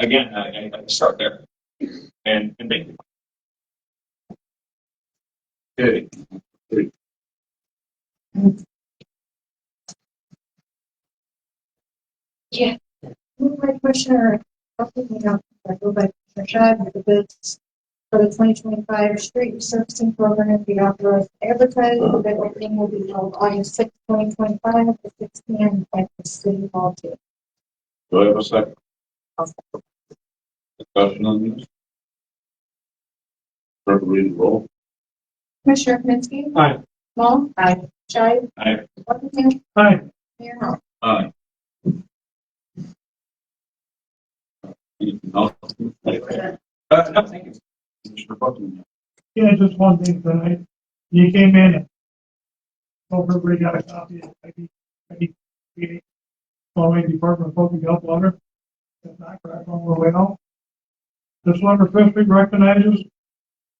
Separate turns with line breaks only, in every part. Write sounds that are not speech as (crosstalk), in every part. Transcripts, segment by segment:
again, I, I start there and, and thank you. Good.
Moved by Commissioner Duffy, moved by Commissioner Shad, that the bids for the twenty twenty-five street resurfacing program be authorized to advertise. The bid opening will be held August sixth, twenty twenty-five, at six P M at the city hall. too.
Do I have a second?
I'll
Discussion on this? Clerk, read the roll.
Commissioner Kaminsky.
Aye.
Long. Aye. Shad.
Aye.
Buckingham.
Hi.
Mayor Hall.
Aye. Anything else?
Uh, no, thank you.
Commissioner Buckingham.
Yeah, just one thing tonight. You came in and hope everybody got a copy of ID, ID, following Department of Public Health letter. If not, grab one on the way out. This letter officially recognizes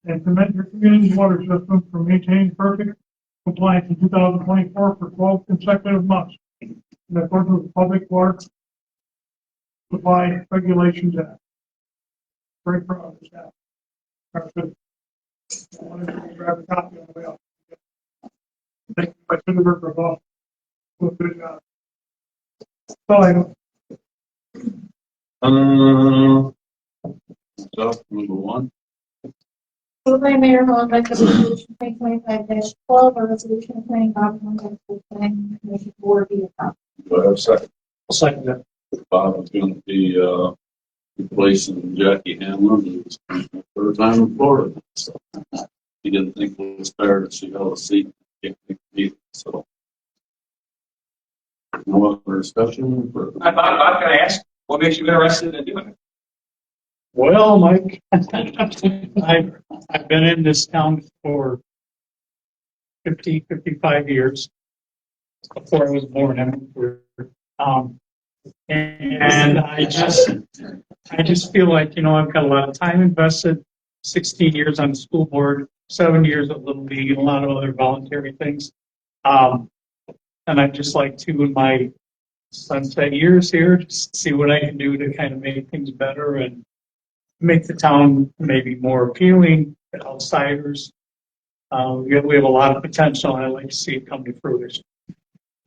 and commit your community's water system for maintaining perfect compliance in two thousand twenty-four for twelve consecutive months. In accordance with Public Water Supply Regulations Act. Very proud of this act. Our system I wanted to grab a copy on the way out. Thank you, my Senator, for all. Well, good job. That's all I know.
Um, so, number one,
Moved by Mayor Hall, that the resolution twenty twenty-five twelve, a resolution appointing Bob Moore as the planning commission board be adopted.
do I have a second?
I'll second that.
Bob is going to be, uh, replacing Jackie Hanlon, who's third time in Florida. So He didn't think it was fair that she held a seat, can't think either, so. No other discussion? for-
Bob, Bob, can I ask, what makes you interested in doing it?
Well, Mike, (laughs) I've, I've been in this town for 50, 55 years. Before I was born, I moved here. Um, and I just, I just feel like, you know, I've got a lot of time invested, 16 years on the school board, seven years at Little League, and a lot of other voluntary things. Um, and I'd just like to, in my sunset years here, just see what I can do to kind of make things better and make the town maybe more appealing to outsiders. Uh, we have, we have a lot of potential, and I'd like to see it come to fruition.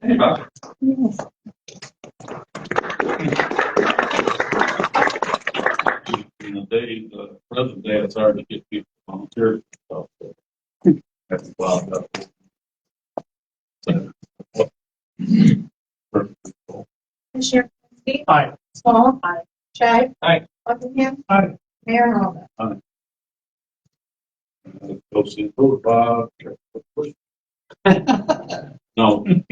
Hey, Bob.
in the day, the present day, it's hard to get people to volunteer. so That's wild.
Commissioner Kaminsky.
Aye.
Small. Aye. Shai.
Aye.
Buckingham.
Aye.
Mayor Hall.
Goes in vote, Bob. No, I'm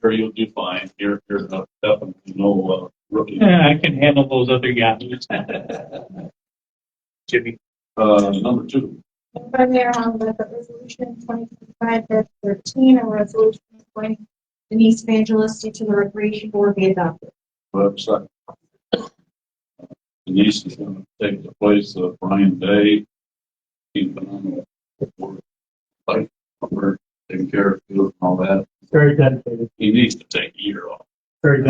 sure you'll do fine. You're, you're not- definitely no uh, rookie.
Yeah, I can handle those other yahoos. (laughs) Jimmy,
Uh, number two,
Moved by Mayor Hall, that the resolution twenty twenty-five thirteen, a resolution appointing Denise Evangelisti to the Recreation Board be adopted.
website. Denise is gonna take the place of Brian Day. He's been on the board, like, we're taking care of you and all that.
Very dedicated,
he needs to take a year off.
very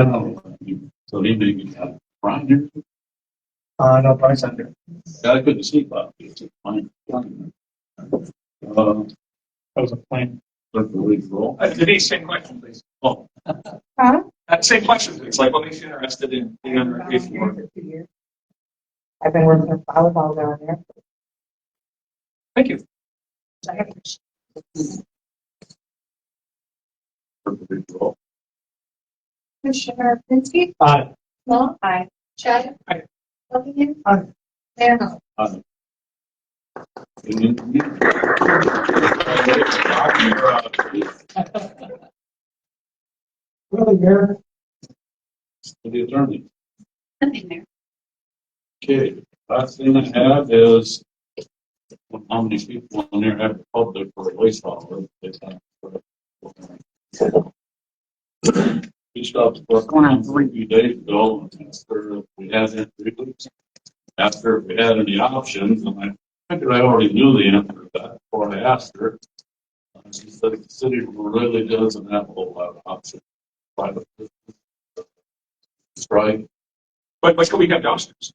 So he may be out. Brian, you
Uh, no, Bryce, I'm here.
I couldn't sleep out. It's a fine. fine. Uh,
that was a plan.
clerk will read the roll.
Uh, Denise, same question, please.
Oh,
Huh?
Uh, same question, please. Like, what makes you interested in being on the recreation board?
I've been working with volleyball down there.
Thank you.
I have to
clerk will read the roll.
Commissioner Kaminsky.
Aye.
Long. Aye. Chad.
Aye.
Buckingham.
Aye.
Mayor Hall.
Aye. And then-
Really, Mayor,
To the attorney. Okay, last thing I have is how many people in there have public for a waste hauler? We stopped for a few days ago and asked her if we had any reasons. Asked her if we had any options and I figured I already knew the answer to that before I asked her. And She said the city really doesn't have a whole lot of options. Private business, Strike
But, but can we have dumpsters?